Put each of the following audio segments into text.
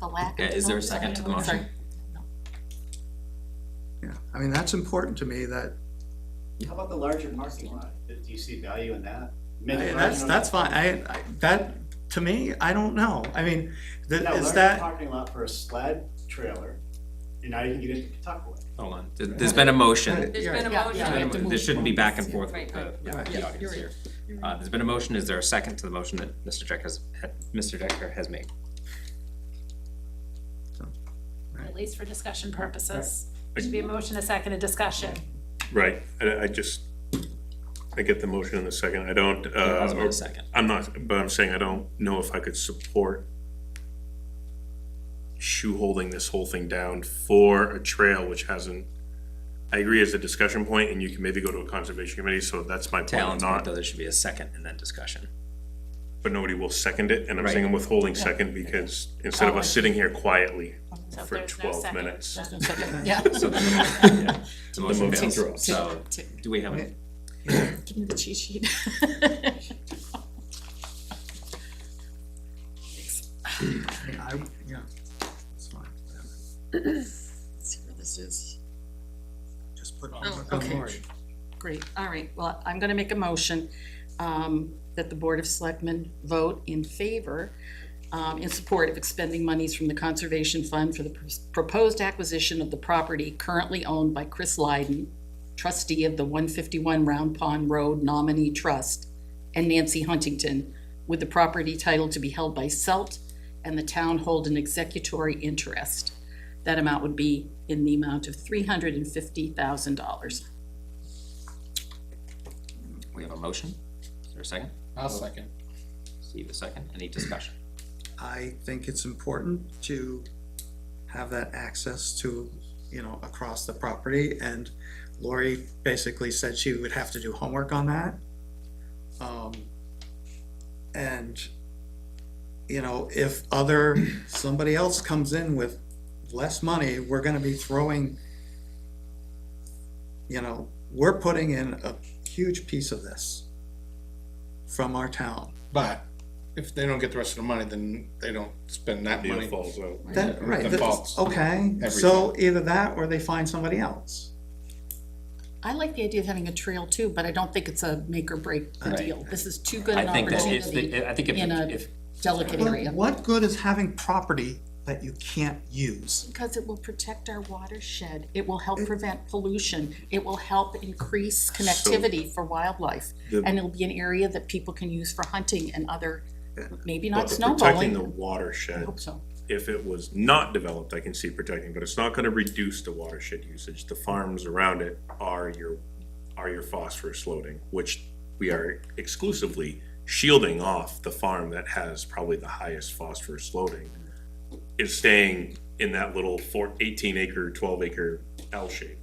the lack of. Okay, is there a second to the Sorry. motion? Yeah, I mean, that's important to me that, How about the larger parking lot? Do you see value in that? Make I- it that's, larger. that's fine. I, I, that, to me, I don't know. I mean, th- Now, is larger that, Parking lot for a sled trailer, and now you can get into Pawtucket. Hold on, There- there's been a motion. There's been a Yeah, yeah, we have to motion. move There shouldn't be back and forth Right, with the, right. with Right. the audience here. Uh, there's been a motion, is there a second to the motion that Mr. Decker has, had- Mr. Decker has made? at least for discussion purposes. Should be a motion, a second, a discussion. Right, I, I just, I get the motion in a second, I don't, uh, Osborne, a second. I'm not, but I'm saying I don't know if I could support shoe-holding this whole thing down for a trail which hasn't, I agree as a discussion point, and you can maybe go to a conservation committee, so that's my To point, I'm Alan's point, not, though, there should be a second and then discussion. but nobody will second it, and I'm Right. saying I'm withholding second because instead of us sitting here quietly So if for there's no twelve second, minutes. then- Yeah. So then the motion, yeah, the motion motion fails. drops. So, do we have, a- Give me the cheat sheet. I, yeah, it's fine. Let's see where this is. Just put it Oh, on the okay. board. Great, all right, well, I'm gonna make a motion, um, that the Board of Selectmen vote in favor, um, in support of expending monies from the Conservation Fund for the pr- proposed acquisition of the property currently owned by Chris Lyden, trustee of the one fifty-one Round Pond Road Nominee Trust, and Nancy Huntington, with the property title to be held by Selt and the town hold an executory interest. That amount would be in the amount of three hundred and fifty thousand dollars. we have a motion? Is there a second? I'll second. Steve, a second, any discussion? I think it's important to have that access to, you know, across the property, and Lori basically said she would have to do homework on that. Um, and, you know, if other, somebody else comes in with less money, we're gonna be throwing, you know, we're putting in a huge piece of this from our town. But if they don't get the rest of the money, then they don't spend that Deal money. falls out. That, right, That that's, falls. okay, so either that or they find somebody else. I like the idea of having a trail too, but I don't think it's a make or break Right. deal. This is too good I an think that if, opportunity, the- I think if, in a- if, delicate But area. what good is having property that you can't use? Because it will protect our watershed, it will help prevent pollution, it will help increase connectivity for wildlife. The- And it'll be an area that people can use for hunting and other, maybe But the not Protecting the snowballing. I watershed hope so. if it was not developed, I can see protecting, but it's not gonna reduce the watershed usage. The farms around it are your, are your phosphorus loading, which we are exclusively shielding off the farm that has probably the highest phosphorus loading. Is staying in that little four, eighteen acre, twelve acre L shape.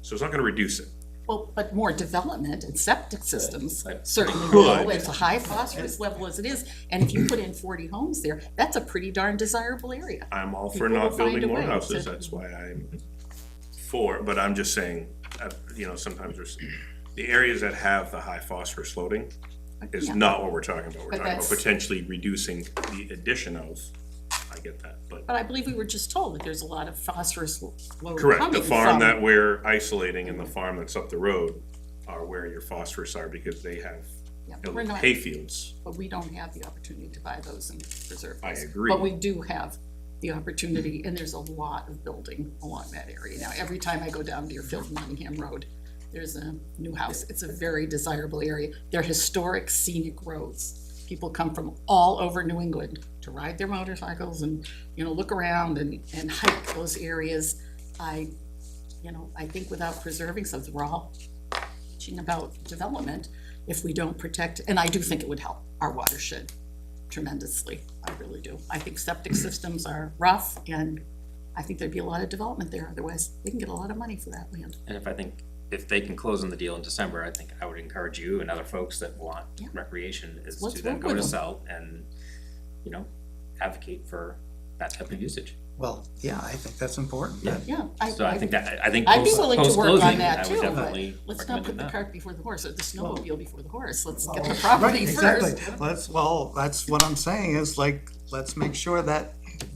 So it's not gonna reduce it. Well, but more development and septic systems Right. certainly will, Could. it's a high phosphorus level as it is. And if you put in forty homes there, that's a pretty darn desirable area. I'm all for People will not find building a more way houses, to- that's why I'm for, but I'm just saying, uh, you know, sometimes there's, the areas that have the high phosphorus loading is Yeah. not what we're talking about, we're But talking about that's- potentially reducing the addition of, I get that, but. But I believe we were just told that there's a lot of phosphorus load coming from. Correct, the farm that we're isolating and the farm that's up the road are where your phosphorus are, because they have Yeah, you know, We're not, hay fields, but we don't have the opportunity to buy those and preserve I those. agree. But we do have the opportunity, and there's a lot of building along that area. Now, every time I go down Deerfield, Nottingham Road, there's a new house. It's a very desirable area. They're historic scenic roads. People come from all over New England to ride their motorcycles and, you know, look around and, and hike those areas. I, you know, I think without preserving something, we're all teaching about development if we don't protect, and I do think it would help our watershed tremendously. I really do. I think septic systems are rough and I think there'd be a lot of development there. Otherwise, they can get a lot of money for that land. and if I think, if they can close on the deal in December, I think I would encourage you and other folks that want Yeah. recreation is Let's to then work go with to them. sell and, you know, advocate for that type of usage. Well, yeah, I think that's important. Yeah. Yeah, I, So I think I, that, I think I'd be post, willing to work on post-closing, that I would too, but definitely let's not put recommend the that. cart before the horse, or the snowmobile before the horse. Let's get the Well, property right, first. Exactly, let's, well, that's what I'm saying is like, let's make sure that